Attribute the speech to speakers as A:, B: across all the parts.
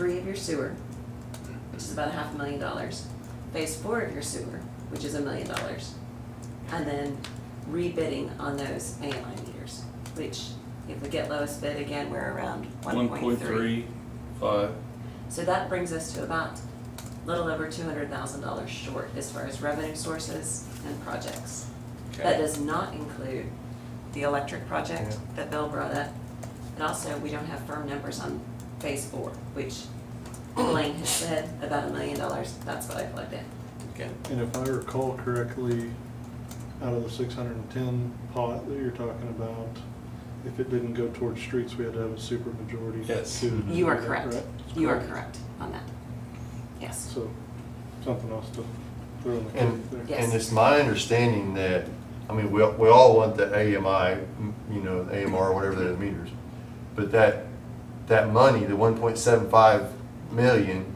A: three of your sewer, which is about a half a million dollars, phase four of your sewer, which is a million dollars, and then rebidding on those main line meters, which if we get lowest bid again, we're around one point three.
B: five.
A: So that brings us to about a little over two hundred thousand dollars short as far as revenue sources and projects. That does not include the electric project that Bill brought up. And also, we don't have firm numbers on phase four, which Blaine has said about a million dollars, that's what I plugged in.
B: Okay.
C: And if I recall correctly, out of the six hundred and ten pot that you're talking about, if it didn't go towards streets, we had to have a super majority.
B: Yes.
C: to
D: Mm-hmm.
C: do
A: You are
C: that,
A: correct,
C: right?
A: you are correct on that. Yes,
C: So, something else to throw in the
D: And,
C: cake there.
A: Yes.
D: and it's my understanding that, I mean, we, we all want the AMI, m- you know, AMR, whatever that is, meters. But that, that money, the one point seven five million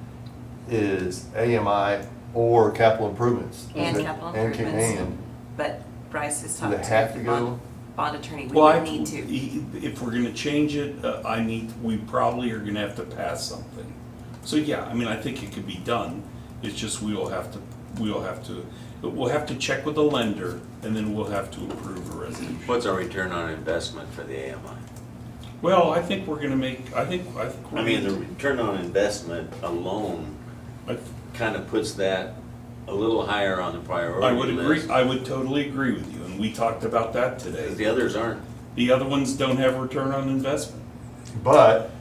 D: is AMI or capital improvements.
A: And capital
D: And can-
A: improvements.
D: and.
A: but Bryce has
D: Do they
A: talked
D: have
A: to
D: to
A: the
D: go?
A: bond, bond attorney, we
B: Well, I- e-
A: would need to.
B: i- If we're gonna change it, uh, I need, we probably are gonna have to pass something. So, yeah, I mean, I think it could be done, it's just we will have to, we will have to, we'll have to check with the lender, and then we'll have to approve a resolution.
E: What's our return on investment for the AMI?
B: Well, I think we're gonna make, I think, I think. we're
E: I mean, the
B: gonna-
E: return on investment alone
B: I-
E: kind of puts that a little higher on the
B: I
E: priority
B: would agree,
E: list.
B: I would totally agree with you, and we talked about that
E: Because The
B: today.
E: others aren't,
B: The other ones don't have return on investment.
D: But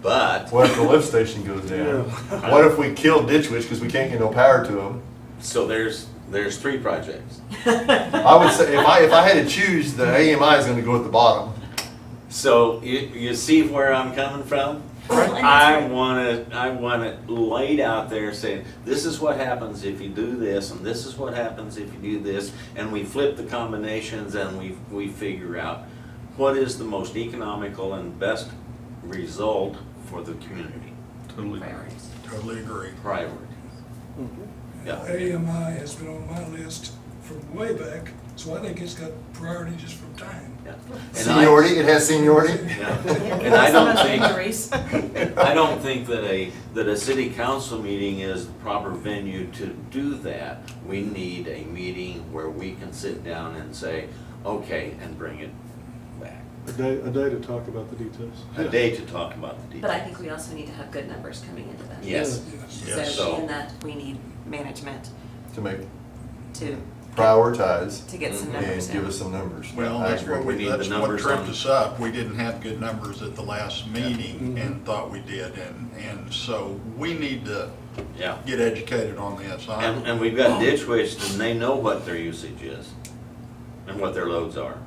E: but,
D: what if the lift station goes down? What if we kill Ditch Witch because we can't get no power to them?
E: so there's, there's three projects.
D: I would say, if I, if I had to choose, the AMI is gonna go at the bottom.
E: So you, you see where I'm coming from?
A: Well, and
E: I
A: that's-
E: want it, I want it laid out there saying, this is what happens if you do this, and this is what happens if you do this, and we flip the combinations and we, we figure out what is the most economical and best result for the community,
B: Totally.
A: Priorities.
F: Totally agree.
E: priority.
C: Mhm.
E: Yeah,
F: AMI has been on my list from way back, so I think it's got priority just from time.
E: yeah. And I-
D: Seniority, it has seniority?
E: Yeah. And I don't think.
G: Injuries.
E: I don't think that a, that a city council meeting is the proper venue to do that. We need a meeting where we can sit down and say, okay, and bring it back.
C: A day, a day to talk about the details.
E: A
C: Yeah.
E: day to talk about the
A: But I
E: details.
A: think we also need to have good numbers coming into that.
E: Yes,
A: So
B: Yeah,
E: so-
A: in that, we need management
D: To make,
A: to,
D: prioritize.
A: to get some
E: Mhm.
A: numbers
D: Mm-hmm. And
A: in.
D: give us some numbers.
F: Well,
D: I
F: that's
D: agree.
F: what
E: We
F: we,
E: need the
F: that's what
E: numbers
F: tripped
E: on-
F: us up. We didn't have good numbers at the last meeting
E: Mm-hmm.
C: Mhm.
F: and thought we did, and, and so we need to
E: yeah.
F: get educated on this. I-
E: And, and we've got ditch witch, and they know what their usage is and what their loads are.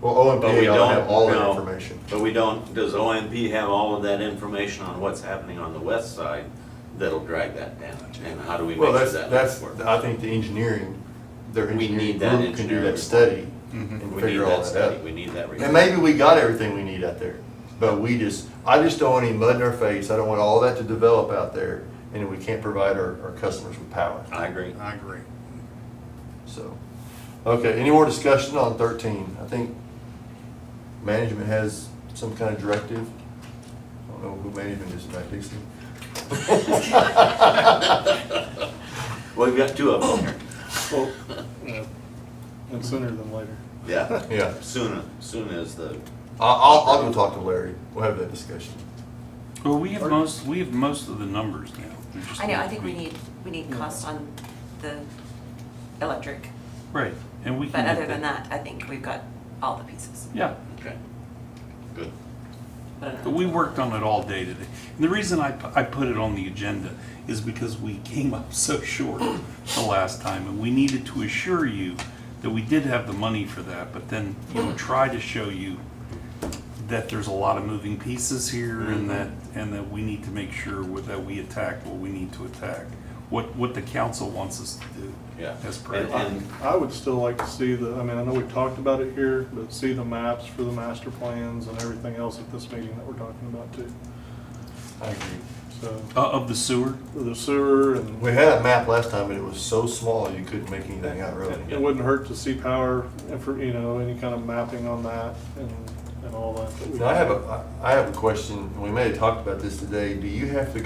D: Well, OMP
E: But we
D: ought to
E: don't
D: have all that
E: know-
D: information.
E: But we don't, does OMP have all of that information on what's happening on the west side that'll drag that down? And how do we make
D: Well,
E: sure
D: that's,
E: that
D: that's,
E: does work?
D: I think the engineering, their
E: We
D: engineering
E: need that
D: group can do
E: engineering. Mm-hmm.
D: that study
E: We
D: and
E: need
D: figure all
E: that
D: that
E: study,
D: out.
E: we need that. report.
D: And maybe we got everything we need out there, but we just, I just don't want any mud in our face. I don't want all that to develop out there and we can't provide our, our customers with power,
E: I agree.
F: I agree.
D: so. Okay, any more discussion on thirteen? I think management has some kind of directive. I don't know who management is, Matt Dixon?
E: Well, we've got two of them here.
C: Well, yeah. And sooner than later.
E: Yeah,
D: Yeah.
E: soon, soon as the,
D: I- I'll, I'll go talk to Larry. We'll have that discussion.
B: Well, we have most, we have most of the numbers now. We just
A: I know, I think we
B: to-
A: need, we need cost on the electric,
B: Right, and we can.
A: but
B: get
A: other than that, I think we've got all the pieces.
B: Mm-hmm. Yeah,
E: okay, good.
A: But I don't
B: but
A: know.
B: we worked on it all day today. And the reason I, pu- I put it on the agenda is because we came up so short the last time. And we needed to assure you that we did have the money for that, but then, you know, try to show you that there's a lot of moving pieces here
A: Mm-hmm.
B: and that, and that we need to make sure with- that we attack what we need to attack, what, what the council wants us to do.
E: Yeah.
B: As per.
E: And, and
C: I would still like to see the, I mean, I know we've talked about it here, but see the maps for the master plans and everything else at this meeting that we're talking about too.
D: I agree.
C: So,
B: Uh, Of the sewer?
C: the sewer and
D: We had a map last time, but it was so small you couldn't make anything out
C: It
D: really.
C: wouldn't hurt to see power, and for, you know, any kind of mapping on that and, and all that. that we
D: Now, I
C: can
D: have
C: do.
D: a, I I have a question. We may have talked about this today. Do you have to